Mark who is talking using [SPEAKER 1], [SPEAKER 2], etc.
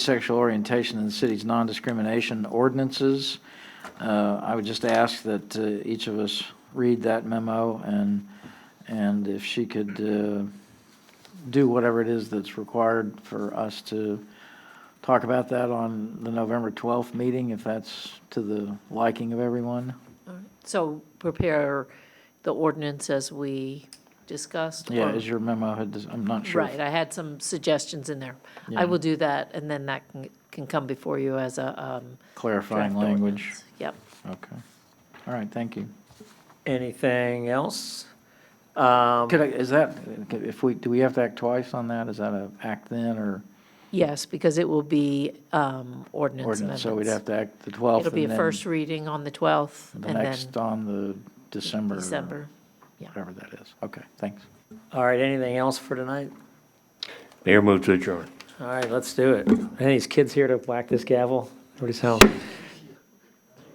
[SPEAKER 1] sexual orientation in the city's non-discrimination ordinances. Uh, I would just ask that uh, each of us read that memo and, and if she could uh, do whatever it is that's required for us to talk about that on the November 12th meeting, if that's to the liking of everyone.
[SPEAKER 2] So prepare the ordinance as we discussed?
[SPEAKER 1] Yeah,
[SPEAKER 2] or-
[SPEAKER 1] as your memo had, I'm not sure.
[SPEAKER 2] Right, I had some suggestions in there.
[SPEAKER 1] Yeah.
[SPEAKER 2] I will do that, and then that can, can come before you as a um,
[SPEAKER 1] Clarifying
[SPEAKER 2] draft
[SPEAKER 1] language.
[SPEAKER 2] ordinance. Yep.
[SPEAKER 1] Okay. All right, thank you.
[SPEAKER 3] Anything else? Um,
[SPEAKER 1] Could I, is that, if we, do we have to act twice on that? Is that a act then or
[SPEAKER 2] Yes, because it will be um, ordinance
[SPEAKER 1] ordinance?
[SPEAKER 2] amendments.
[SPEAKER 1] So we'd have to act the 12th.
[SPEAKER 2] It'll be a
[SPEAKER 1] and then
[SPEAKER 2] first reading on the 12th,
[SPEAKER 1] The
[SPEAKER 2] and then
[SPEAKER 1] next on the December.
[SPEAKER 2] December. Yeah.
[SPEAKER 1] Whatever that is. Okay, thanks.
[SPEAKER 3] All right, anything else for tonight?
[SPEAKER 4] Mayor move to adjourn.
[SPEAKER 3] All right, let's do it. Any of these kids here to whack this gavel? What is hell?